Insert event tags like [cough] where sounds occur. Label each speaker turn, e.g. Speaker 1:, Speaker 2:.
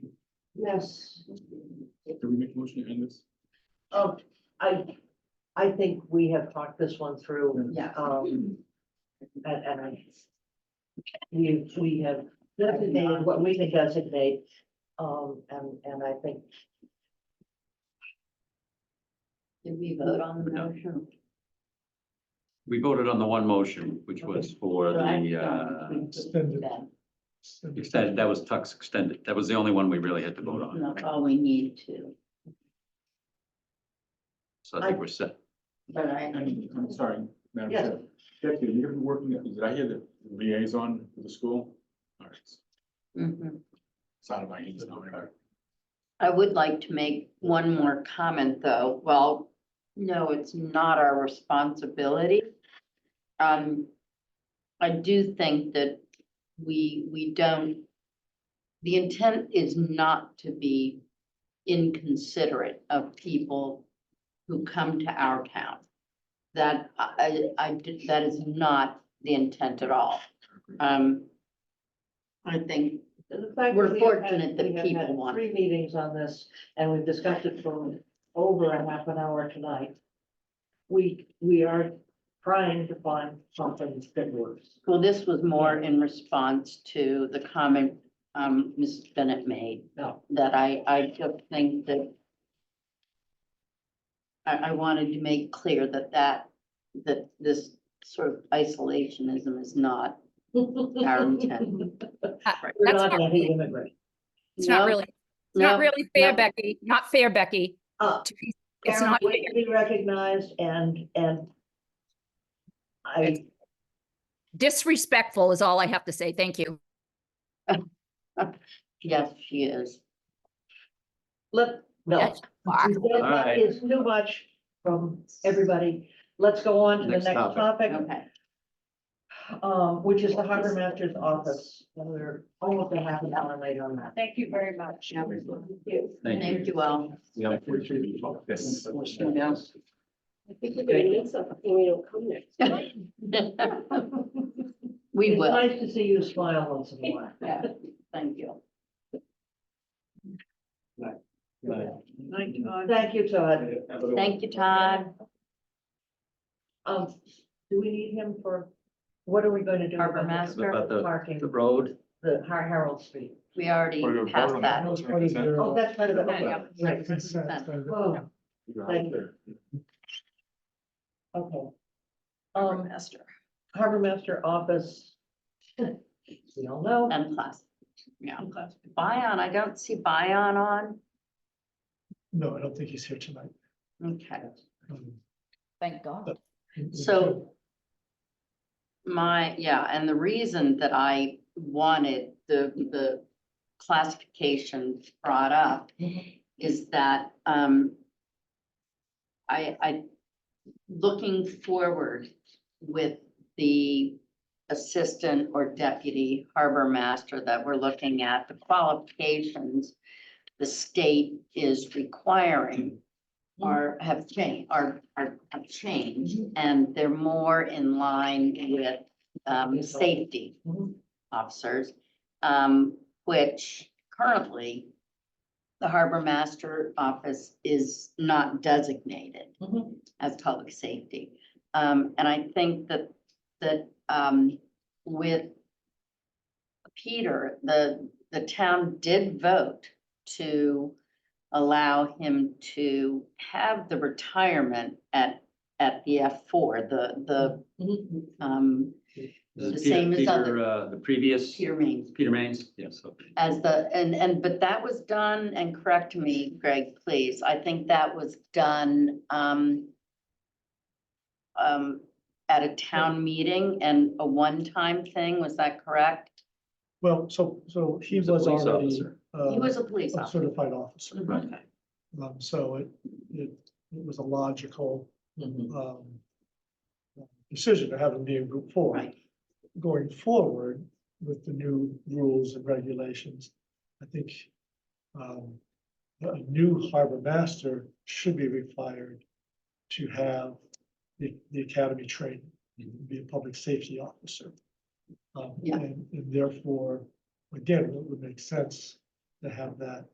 Speaker 1: Yes,
Speaker 2: Can we make a motion to end this?
Speaker 1: um, I, I think we have talked this one through,
Speaker 3: Yeah.
Speaker 1: um, and, and I. We, we have designated what we can designate, um, and, and I think,
Speaker 3: Did we vote on the motion?
Speaker 4: We voted on the one motion, which was for the, uh,
Speaker 3: um,
Speaker 5: Extended.
Speaker 4: extended, that was Tux extended. That was the only one we really had to vote on.
Speaker 3: Not all we need to,
Speaker 4: So I think we're set.
Speaker 3: but I,
Speaker 2: And I'm sorry, Madam
Speaker 1: Yes.
Speaker 2: Chair. Deputy, you're working, did I hear the liaison for the school? All right, it's
Speaker 3: Mhm.
Speaker 2: out of my hands now. all right.
Speaker 3: I would like to make one more comment, though. Well, no, it's not our responsibility. Um, I do think that we, we don't, the intent is not to be inconsiderate of people who come to our town. That, I, I- I, did- that is not the intent at all. Um, I think,
Speaker 1: the fact.
Speaker 3: We're
Speaker 1: that we have had-
Speaker 3: fortunate that
Speaker 1: we have had
Speaker 3: people want
Speaker 1: Three meetings on this, and we've discussed it for over a half an hour tonight. We, we are trying to find something that works.
Speaker 3: well, this was more in response to the comment, um, Mrs. Bennett made,
Speaker 1: No,
Speaker 3: that I, I just think that I, I wanted to make clear that that, that this sort of isolationism is not [laughs] our intent.
Speaker 1: [laughs] we're
Speaker 6: That's
Speaker 1: not
Speaker 6: not really-
Speaker 1: anti-immigrant.
Speaker 6: It's not
Speaker 3: No,
Speaker 6: really, it's not
Speaker 3: no,
Speaker 6: really fair,
Speaker 3: no.
Speaker 6: Becky, not fair, Becky.
Speaker 1: Uh,
Speaker 6: to be- It's
Speaker 1: Karen,
Speaker 6: not fair.
Speaker 1: we we recognize and, and I,
Speaker 6: Disrespectful is all I have to say. Thank you.
Speaker 3: Yes, she is.
Speaker 1: let, no.
Speaker 6: That's far.
Speaker 1: That- That
Speaker 4: Alright.
Speaker 1: is too much from everybody. Let's go on to the
Speaker 4: Next
Speaker 1: next topic,
Speaker 4: topic.
Speaker 3: Okay.
Speaker 1: um, which is the harbor master's office. And we're almost a half an hour late on that.
Speaker 7: Thank you very much.
Speaker 3: Yeah.
Speaker 4: Thank you.
Speaker 3: Thank you all.
Speaker 4: Yeah, I appreciate you talking this.
Speaker 3: [laughs]
Speaker 7: I think we're gonna miss something, we don't come next.
Speaker 3: We
Speaker 1: It's
Speaker 3: will.
Speaker 1: Nice to see you smile once in a while.
Speaker 3: Yeah, Thank you.
Speaker 1: [laughs] Thank you, Todd.
Speaker 3: Thank you, Todd.
Speaker 1: Um, do we need him for, what are we going to do?
Speaker 3: Harbor
Speaker 1: about the-
Speaker 3: master.
Speaker 4: About the,
Speaker 1: Parking,
Speaker 4: the road,
Speaker 1: the Har- Harold Street.
Speaker 3: We already
Speaker 2: We're gonna
Speaker 3: passed
Speaker 2: vote on
Speaker 3: that.
Speaker 2: that.
Speaker 1: Oh, that's part of the.
Speaker 2: Yeah,
Speaker 1: Right.
Speaker 5: Consent.
Speaker 1: Oh, Thank okay. Um,
Speaker 7: Master.
Speaker 1: harbor master office. [laughs] We all know.
Speaker 3: And plus, yeah. Bion, I don't see Bion on.
Speaker 5: No, I don't think he's here tonight.
Speaker 3: Okay,
Speaker 5: Um,
Speaker 6: Thank God.
Speaker 3: So- my, yeah, and the reason that I wanted the, the classification brought up is that, um, I, I, looking forward with the assistant or deputy harbor master that we're looking at, the qualifications the state is requiring are, have changed, are, are, have changed, and they're more in line with, um, safety
Speaker 1: Mhm.
Speaker 3: officers, um, which currently the harbor master office is not designated
Speaker 1: Mhm.
Speaker 3: as public safety. Um, and I think that, that, um, with Peter, the, the town did vote to allow him to have the retirement at, at the F four, the, the,
Speaker 1: mm-hmm.
Speaker 3: um,
Speaker 4: This is
Speaker 3: The same
Speaker 4: Peter,
Speaker 3: as
Speaker 4: Peter,
Speaker 3: other-
Speaker 4: uh, the previous,
Speaker 3: Peter Mains.
Speaker 4: Peter Mains, yes, okay.
Speaker 3: As the, and, and, but that was done, and correct me, Greg, please, I think that was done, um, um, at a town meeting and a one-time thing, was that correct?
Speaker 5: Well, so, so he
Speaker 4: He's a
Speaker 5: was
Speaker 4: police
Speaker 5: already
Speaker 4: officer.
Speaker 3: He
Speaker 5: uh,
Speaker 3: was a police
Speaker 5: a
Speaker 3: officer.
Speaker 5: certified
Speaker 4: Mm-hmm.
Speaker 5: officer.
Speaker 3: Mhm.
Speaker 5: Um, so it, it, it was a logical,
Speaker 3: Mm-hmm.
Speaker 5: um, decision to have him be in group four.
Speaker 3: Right,
Speaker 5: going forward with the new rules and regulations, I think um, a new harbor master should be required to have the, the academy training, be a public safety officer. Um,
Speaker 3: Mm-hmm. Yeah.
Speaker 5: And and therefore, again, it would make sense to have that